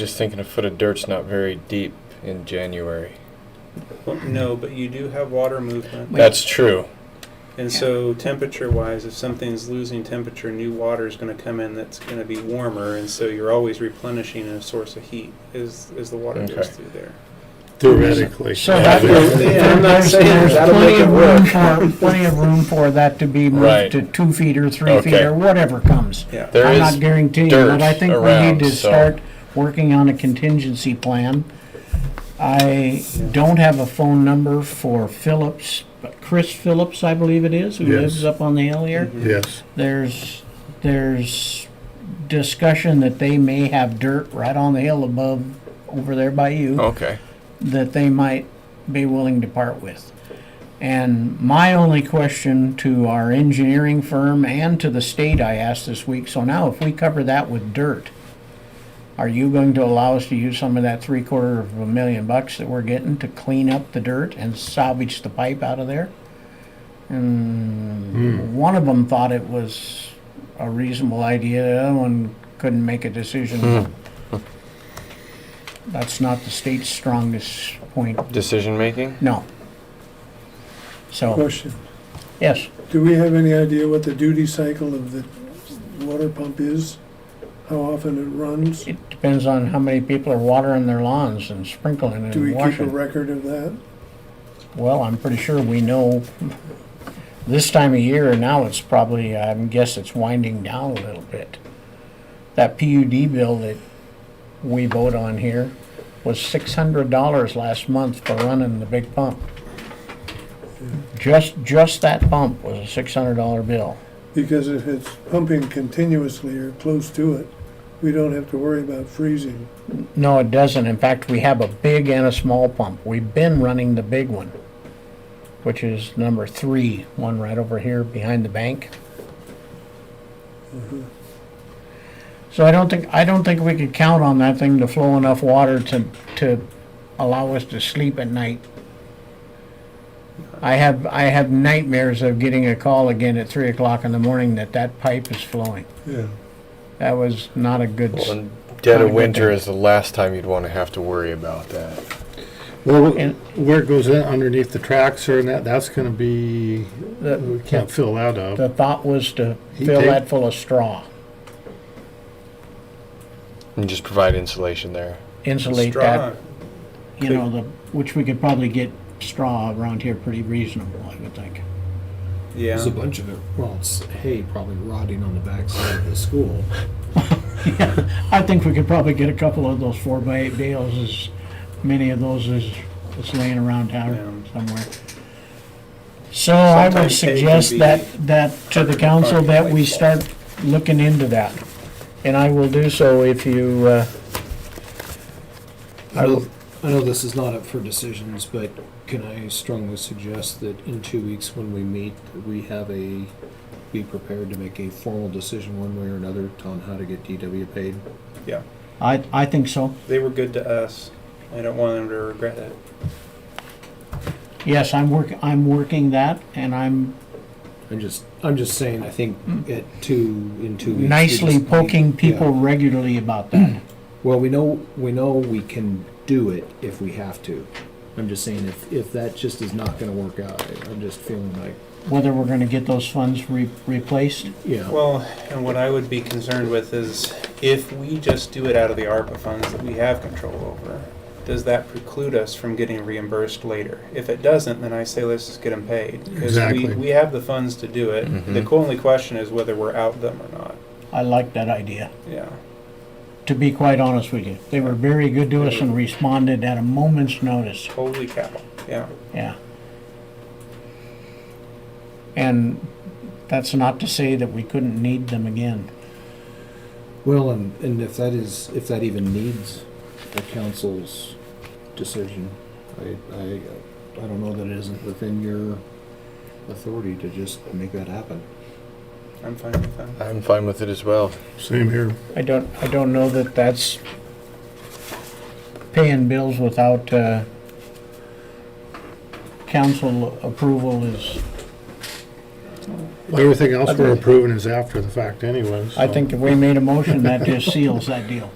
Just thinking a foot of dirt's not very deep in January. No, but you do have water movement. Wait. That's true. And so temperature wise, if something's losing temperature, new water is going to come in that's going to be warmer. And so you're always replenishing a source of heat as, as the water goes Okay. through there. Theoretically. So Yeah, that, there's- Yeah, I'm not there's, saying there's that'll plenty make it of room for, plenty of room for that to be Right. moved to two feet or three feet Okay. or whatever comes. Yeah. There I'm is not guaranteeing, dirt but I think we around, need to so- start working on a contingency plan. I don't have a phone number for Phillips, but Chris Phillips, I believe it is, who Yes. lives up on the hill here. Mhm. Yes, There's, there's discussion that they may have dirt right on the hill above, over there by you Okay. that they might be willing to part with. And my only question to our engineering firm and to the state I asked this week, so now if we cover that with dirt, are you going to allow us to use some of that three quarter of a million bucks that we're getting to clean up the dirt and salvage the pipe out of there? And one of them thought it was a reasonable idea, the other one couldn't make a decision. That's not the state's strongest point Decision making? no. Oh. So, Question, yes, do we have any idea what the duty cycle of the water pump is? How often it runs? it depends on how many people are watering their lawns and sprinkling Do we and keep a washing. record of that? Well, I'm pretty sure we know this time of year, now it's probably, I guess it's winding down a little bit. That PUD bill that we vote on here was six hundred dollars last month for running the big pump. Just, just that pump was a six hundred dollar bill. Because if it's pumping continuously or close to it, we don't have to worry about freezing. No, it doesn't. In fact, we have a big and a small pump. We've been running the big one, which is number three, one right over here behind the bank. So I don't think, I don't think we could count on that thing to flow enough water to, to allow us to sleep at night. I have, I have nightmares of getting a call again at three o'clock in the morning that that pipe is flowing. Yeah. That was not a good, Well, s- and dead Not a of good winter thing. is the last time you'd want to have to worry about that. well, And- where it goes in underneath the tracks or in that, that's gonna be, the, we can't fill that up. The thought was to He fill take- that full of straw, And just provide insulation there. insulate Straw. that, you know, the, which we could probably get straw around here pretty reasonable, I would think. Yeah. There's a bunch of it. Well, it's hay probably rotting on the backside of the school. I think we could probably get a couple of those four by eight bales, as many of those as, that's laying around town Yeah. somewhere. So I would Sometimes hay can suggest be that, that to the harder to council find that than we white start looking into that. And I will do so if you, uh, I know, I know this is not up for decisions, but can I strongly suggest that in two weeks when we meet, we have a, be prepared to make a formal decision one way or another on how to get DW paid? Yeah. I, I think so. They were good to us. I don't want them to regret it. Yes, I'm work, I'm working that and I'm I'm just, I'm just saying, I think at two, in two weeks. we Hmm. nicely just need- poking Yeah. people regularly about that. Well, we know we know we can do it if we have to. I'm just saying if if that just is not going to work out, I- I'm just feeling like Whether we're gonna get those funds re- replaced, yeah. Well, and what I would be concerned with is if we just do it out of the ARPA funds that we have control over, does that preclude us from getting reimbursed later? If it doesn't, then I say let's just get them paid. Because we, Exactly. we have the funds to do it. The only question is whether we're out them or not. I like that idea, Yeah. to be quite honest with you. They were very good to us and responded at a moment's notice, Holy cow. Yeah. yeah. And that's not to say that we couldn't need them again. Well, and and if that is if that even needs the council's decision, I I I don't know that it isn't within your authority to just make that happen. I'm fine with that. I'm fine with it as well. Same here. I don't, I don't know that that's paying bills without, uh, council approval is Well, Everything else we're approving is after the fact anyways. I think if we made a motion, that just seals that deal.